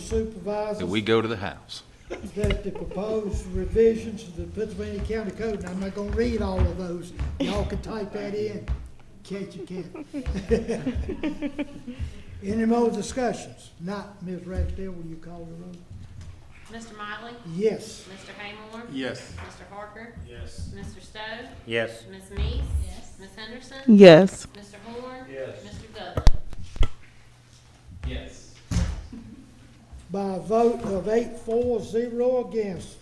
Supervisors that we go to the House. that the proposed revisions to the Pennsylvania County Code, and I'm not gonna read all of those, y'all can type that in, in case you can. Any more discussions? Not, Ms. Ragsdale, will you call the roll? Mr. Miley? Yes. Mr. Haymore? Yes. Mr. Harker? Yes. Mr. Stowe? Yes. Ms. Mees? Yes. Ms. Henderson? Yes. Mr. Horn? Yes. Mr. Dudley? Yes. by a vote of eight, four, zero against,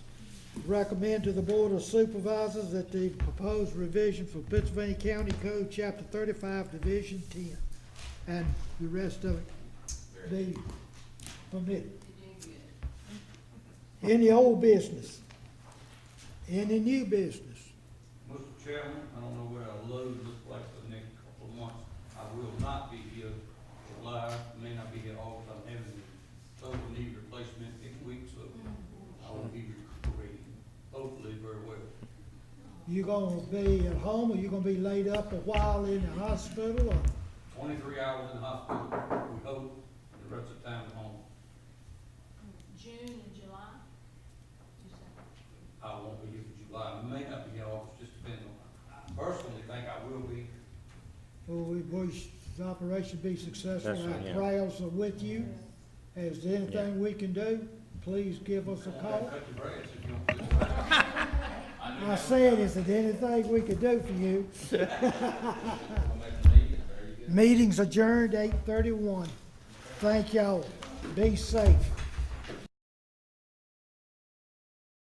recommend to the Board of Supervisors that the proposed revision for Pennsylvania County Code, Chapter thirty-five, Division ten, and the rest of it be permitted. Any old business? Any new business? Mr. Chairman, I don't know what our load looks like for the next couple of months. I will not be here July, may not be here August, I'm having a total knee replacement this week, so I will be recuperating, hopefully very well. You gonna be at home, or you gonna be laid up a while in the hospital, or? Twenty-three hours in the hospital, we hope, the rest of the time at home. June and July? I won't be here for July, may not be here August, just depends on, I personally think I will be, Well, we wish the operation be successful. That's right, Our yeah. prayers are with you. Is there anything we can do? Please give us a call. cut your grass if you don't. do it. I know I said, is there anything we could do for you? I'm making a leave, there you go. Meeting's adjourned eight thirty-one. Thank y'all. Be safe.